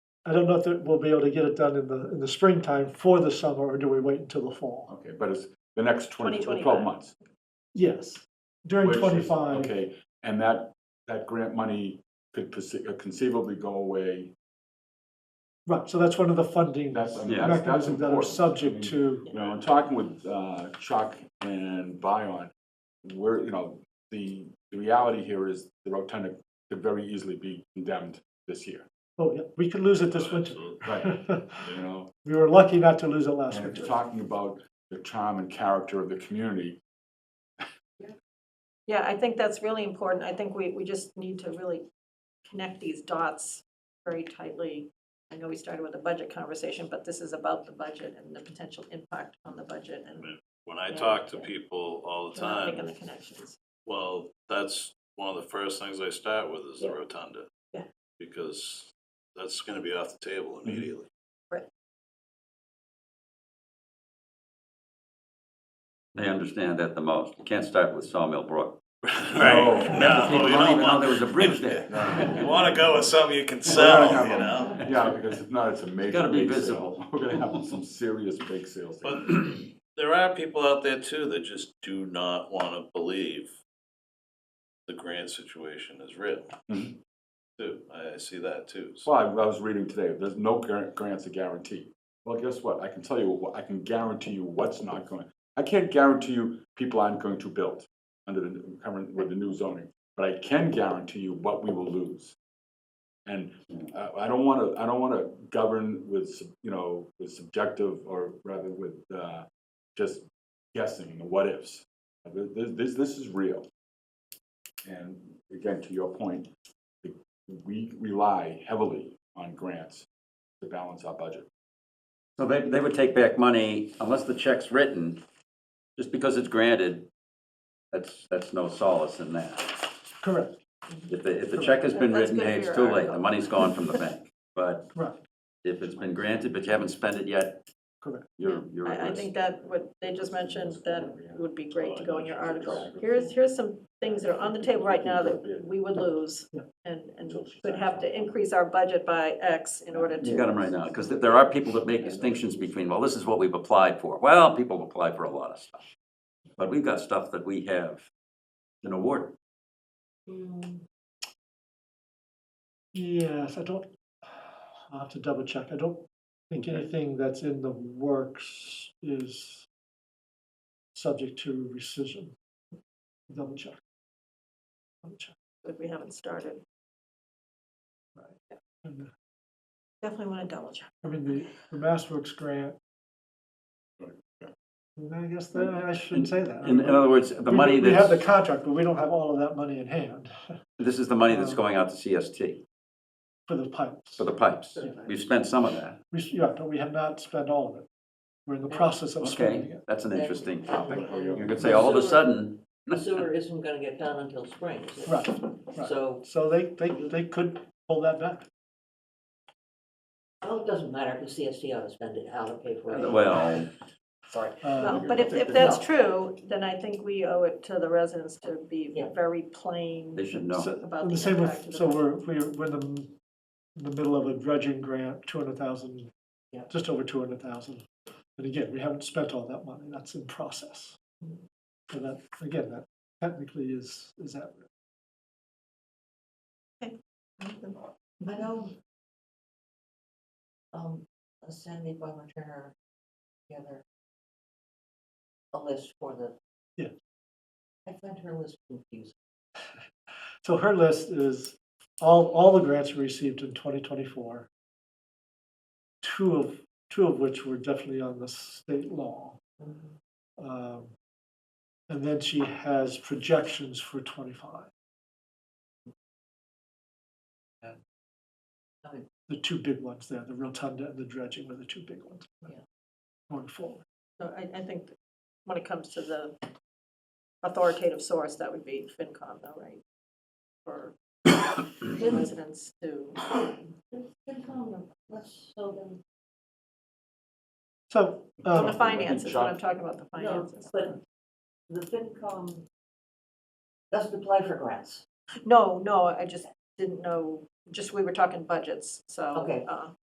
I don't know if that we'll be able to get it done in the, in the springtime for the summer, or do we wait until the fall? Okay, but it's the next twenty, the 2025. twelve months. Yes, during which is- twenty-five, Okay, and that, that grant money could perce- uh, conceivably go away. right, so that's one of the funding That's, I mean, Yeah. that's, that's mechanisms that are important. I mean, subject to, You know, in talking with uh, Chuck and Bion, we're, you know, the, the reality here is the rotunda could very easily be condemned this year, oh, yeah, we could lose it this winter. Right. you know? We were lucky not to lose it last And if you're winter. talking about the charm and character of the community, Yeah, I think that's really important. I think we, we just need to really connect these dots very tightly. I know we started with a budget conversation, but this is about the budget and the potential impact on the budget and When I Yeah. talk to people all the we're not making time, the connections. well, that's one of the first things I start with is the Yeah. rotunda. Yeah. Because that's gonna be off the table immediately. They understand that the most. You can't start with Sawmill Brook. Right? No, People you don't don't even know want- there was a bridge there. You wanna go with something you can sell, have you a- know? yeah, because if not, it's a major gotta be bake sale. visible. We're gonna have some serious bake sales. But there are people out there too that just do not wanna believe the grant situation is real. Mhm. Too, I I see that too. So Well, I I was reading today, there's no guar- grants are guaranteed. Well, guess what? I can tell you, what- I can guarantee you what's not going. I can't guarantee you people aren't going to build under the current, with the new zoning, but I can guarantee you what we will lose. And uh, I- I don't want to, I don't want to govern with, sub- you know, with subjective or rather with uh, just guessing the what ifs. This, this, this is real. And again, to your point, we rely heavily on grants to balance our budget. So they, they would take back money unless the check's written, just because it's granted, that's, that's no solace in that. Correct, If the, if the check has been That's written, good hey, for it's your too late, the article. money's gone from the bank. But right, if it's been granted, but you haven't spent it yet, correct. you're, you're at I, I risk. think that what they just mentioned, that would be great to go in your article. Here's, here's some things that are on the table right now that we would lose and, and would have to increase our budget by X in order to. You got them right now, because there are people that make distinctions between, well, this is what we've applied for. Well, people apply for a lot of stuff. But we've got stuff that we have been awarded. Mm, Yes, I don't, I'll have to double check. I don't think anything that's in the works is subject to rescission. Double check. Double check. But we haven't started. And, uh, Definitely want to double check. I mean, the, the Mass Works grant. Right, yeah. And I guess that, I shouldn't say that. In, in other words, uh, the We- money We have the that's, contract, but we don't have all of that money in hand this is the money that's uh, going out to CST for the pipes. for the pipes. We've spent some of that. We, s- yeah, but we have not spent all of it. We're in the process of spending Okay, it. that's an interesting topic. You Well, could say all of a sudden, The sewer isn't gonna get done until spring, is it? Right, right. So, So they, they, they could pull that back. well, it doesn't matter, because CST ought to spend it, how to pay for it. well, Sorry. Uh, Well, but if, if that's true, then I think we owe it to the residents to be Yeah. very plain they should so- know. about and the the same with, impact. of so the- we're, we're we're in the, m- in the middle of a dredging grant, two hundred thousand, Yeah. just over two hundred thousand. And again, we haven't spent all that money, that's in process. So that, again, that technically is, is that. I know, um, Sandy Bowman Turner, together a list for the. Yeah. I find her list confusing. So her list is all, all the grants we received in twenty twenty-four. Two of, two of which were definitely on the state law. Um, And then she has projections for twenty-five. And Okay. The two big ones there, the rotunda and the dredging were the two big ones. Yeah. Going forward. So I, I think when it comes to the authoritative source, that would be FinCom though, right? For residents to, Good comment, let's, so then. So, on the um, finances, when I'm Chuck- talking about the No, finances. but the FinCom doesn't apply for grants. No, no, I just didn't know, just, we were talking budgets, so. Okay. uh,